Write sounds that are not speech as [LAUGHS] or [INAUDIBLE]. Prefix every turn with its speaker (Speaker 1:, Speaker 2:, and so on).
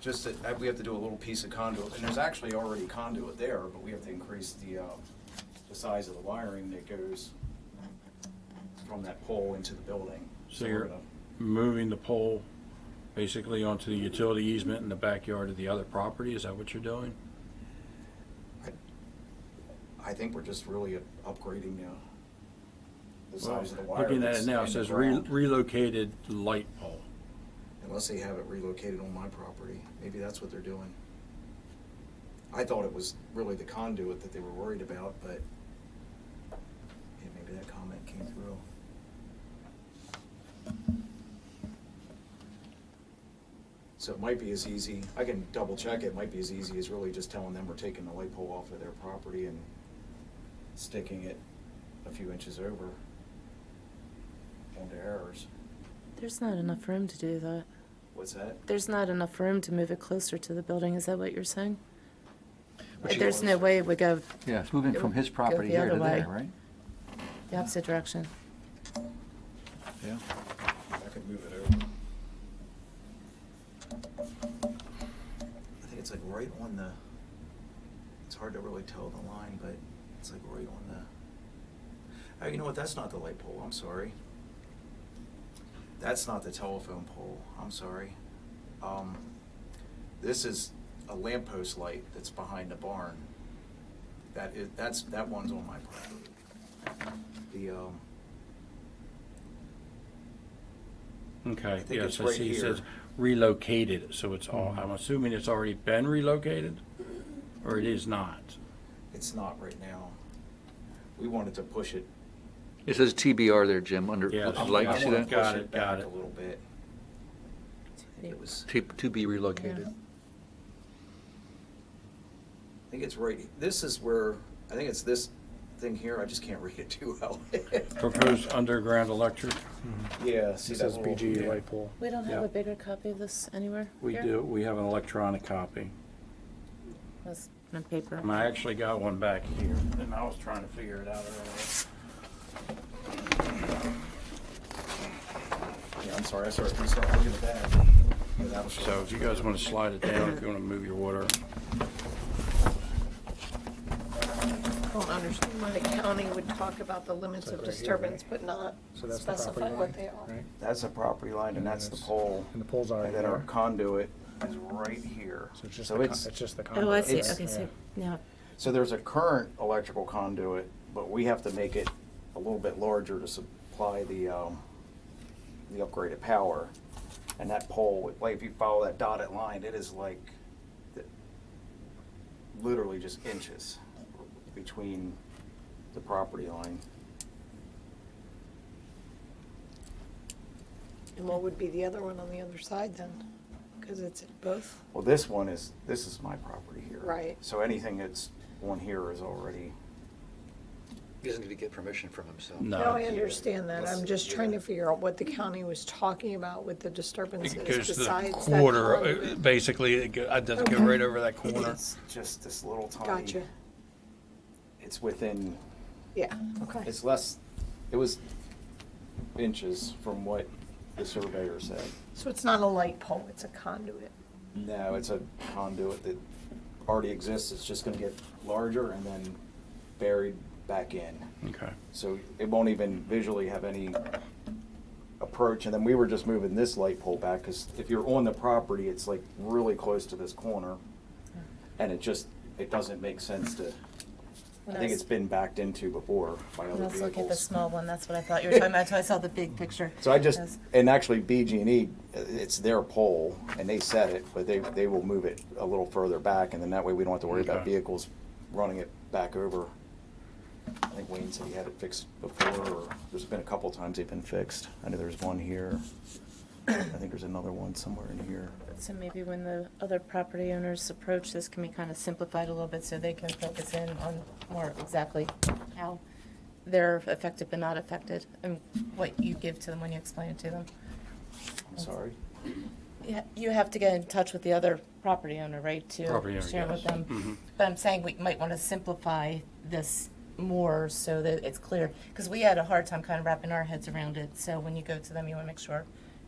Speaker 1: just that, uh, we have to do a little piece of conduit, and there's actually already conduit there, but we have to increase the, uh, the size of the wiring that goes from that pole into the building.
Speaker 2: So
Speaker 1: we're
Speaker 2: you're
Speaker 1: gonna-
Speaker 2: moving the pole basically onto the utility easement in the backyard of the other property? Is that what you're doing?
Speaker 1: I think we're just really upgrading the, the size of the wire.
Speaker 2: Looking at
Speaker 1: that's
Speaker 2: it now,
Speaker 1: in
Speaker 2: it
Speaker 1: the
Speaker 2: says re-
Speaker 1: ground.
Speaker 2: relocated light pole.
Speaker 1: Unless they have it relocated on my property, maybe that's what they're doing. I thought it was really the conduit that they were worried about, but yeah, maybe that comment came through. So it might be as easy, I can double check, it might be as easy as really just telling them we're taking the light pole off of their property and sticking it a few inches over onto ours.
Speaker 3: There's not enough room to do that.
Speaker 1: What's that?
Speaker 3: There's not enough room to move it closer to the building, is that what you're saying?
Speaker 1: But she-
Speaker 3: There's no way it would go
Speaker 4: Yeah, it's moving from his
Speaker 3: Go- go
Speaker 4: property
Speaker 3: the
Speaker 4: here
Speaker 3: other
Speaker 4: to
Speaker 3: way.
Speaker 4: there, right?
Speaker 3: the opposite direction.
Speaker 4: Yeah.
Speaker 1: I could move it over. I think it's like right on the, it's hard to really tell the line, but it's like right on the, oh, you know what, that's not the light pole, I'm sorry. That's not the telephone pole, I'm sorry. Um, this is a lamppost light that's behind the barn. That is, that's, that one's on my property. The, um,
Speaker 2: Okay,
Speaker 1: think
Speaker 2: yes,
Speaker 1: it's
Speaker 2: I
Speaker 1: right
Speaker 2: see, it says
Speaker 1: here. Mm-hmm.
Speaker 2: relocated, so it's all, I'm assuming it's already been relocated? Or it is not?
Speaker 1: It's not right now. We wanted to push it.
Speaker 4: It says TBR there, Jim, under,
Speaker 2: Yeah,
Speaker 4: looks
Speaker 2: I
Speaker 4: like,
Speaker 1: I
Speaker 4: you see
Speaker 1: wanna
Speaker 2: want
Speaker 4: that?
Speaker 2: Got
Speaker 1: push
Speaker 2: it, got
Speaker 1: back
Speaker 2: it.
Speaker 1: A little bit. I think it was,
Speaker 4: To, to be relocated.
Speaker 1: I think it's right, this is where, I think it's this thing here, I just can't [LAUGHS] read it too well.
Speaker 2: Proposed underground electric?
Speaker 1: Yeah, see
Speaker 5: This
Speaker 1: that
Speaker 5: says
Speaker 1: little.
Speaker 5: BG
Speaker 1: yeah.
Speaker 5: light pole.
Speaker 3: We don't have
Speaker 2: Yeah.
Speaker 3: a bigger copy of this anywhere
Speaker 2: We
Speaker 3: here?
Speaker 2: do, we have an electronic copy.
Speaker 3: That's on paper.
Speaker 2: And I actually got one back here, and I was trying to figure it out earlier.
Speaker 1: Yeah, I'm sorry, I started, I started looking at that. Yeah, that'll show.
Speaker 2: So if you guys want to slide it down, if you want to move your water.
Speaker 6: I don't understand why the county would talk about the limits
Speaker 5: Like
Speaker 6: of
Speaker 5: right here,
Speaker 6: disturbance,
Speaker 5: right?
Speaker 6: but not
Speaker 5: So that's the
Speaker 6: specify
Speaker 5: property
Speaker 6: what
Speaker 5: line,
Speaker 6: they are.
Speaker 5: right?
Speaker 1: That's a property line and
Speaker 5: And
Speaker 1: that's the
Speaker 5: it's-
Speaker 1: pole.
Speaker 5: and the pole's already
Speaker 1: And then our
Speaker 5: there.
Speaker 1: conduit is right here.
Speaker 5: So it's just, the
Speaker 1: So
Speaker 5: con-
Speaker 1: it's,
Speaker 5: it's just the conduit.
Speaker 3: Oh, I see,
Speaker 1: It's-
Speaker 3: okay,
Speaker 5: Yeah.
Speaker 3: so, now,
Speaker 1: so there's a current electrical conduit, but we have to make it a little bit larger to supply the, um, the upgraded power. And that pole, like, if you follow that dotted line, it is like, th- literally just inches between the property line.
Speaker 6: And what would be the other one on the other side then? Because it's at both.
Speaker 1: Well, this one is, this is my property here.
Speaker 6: Right.
Speaker 1: So anything that's on here is already,
Speaker 4: He doesn't need to get permission from himself.
Speaker 2: No.
Speaker 6: No, I understand that.
Speaker 1: Let's-
Speaker 6: I'm just trying
Speaker 1: yeah.
Speaker 6: to figure out what the county was talking about with the disturbances
Speaker 7: It
Speaker 6: besides
Speaker 7: goes to the
Speaker 6: that
Speaker 7: quarter, uh,
Speaker 6: conduit.
Speaker 7: basically, it go- it doesn't go
Speaker 6: Okay.
Speaker 7: right over that corner.
Speaker 1: it's just this little
Speaker 7: uh,
Speaker 1: tiny.
Speaker 6: Gotcha.
Speaker 1: It's within
Speaker 6: Yeah, okay.
Speaker 1: It's less, it was inches from what the surveyor said.
Speaker 6: So it's not a light pole, it's a conduit.
Speaker 1: No, it's a conduit that already exists, it's just gonna get larger and then buried back in.
Speaker 2: Okay.
Speaker 1: So it won't even visually have any approach, and then we were just moving this light pole back, because if you're on the property, it's like really close to this corner. And it just, it doesn't make sense to,
Speaker 3: when
Speaker 1: I
Speaker 3: I
Speaker 1: think
Speaker 3: was-
Speaker 1: it's been backed into before by
Speaker 3: when I
Speaker 1: other
Speaker 3: was looking at the
Speaker 1: vehicles.
Speaker 3: small one, that's what I thought you were talking about, until I saw the big picture.
Speaker 1: So I just,
Speaker 3: Yes.
Speaker 1: and actually BG&E, uh, it's their pole, and they set it, but they, they will move it a little further back, and then that way we don't have to worry about
Speaker 2: Okay.
Speaker 1: vehicles running it back over. I think Wayne said he had it fixed before, or there's been a couple times they've been fixed. I know there's one here. I think there's another one somewhere in here.
Speaker 3: So maybe when the other property owners approach, this can be kind of simplified a little bit so they can focus in on more exactly how they're affected but not affected and what you give to them when you explain it to them.
Speaker 1: I'm sorry.
Speaker 3: Yeah, You have to get in touch with the other property owner, right,
Speaker 2: Property
Speaker 3: to
Speaker 2: owner,
Speaker 3: share with
Speaker 2: yes. Mm-hmm.
Speaker 3: them? But I'm saying we might want to simplify this more so that it's clear, because we had a hard time kind of wrapping our heads around it. So when you go to them, you want to make sure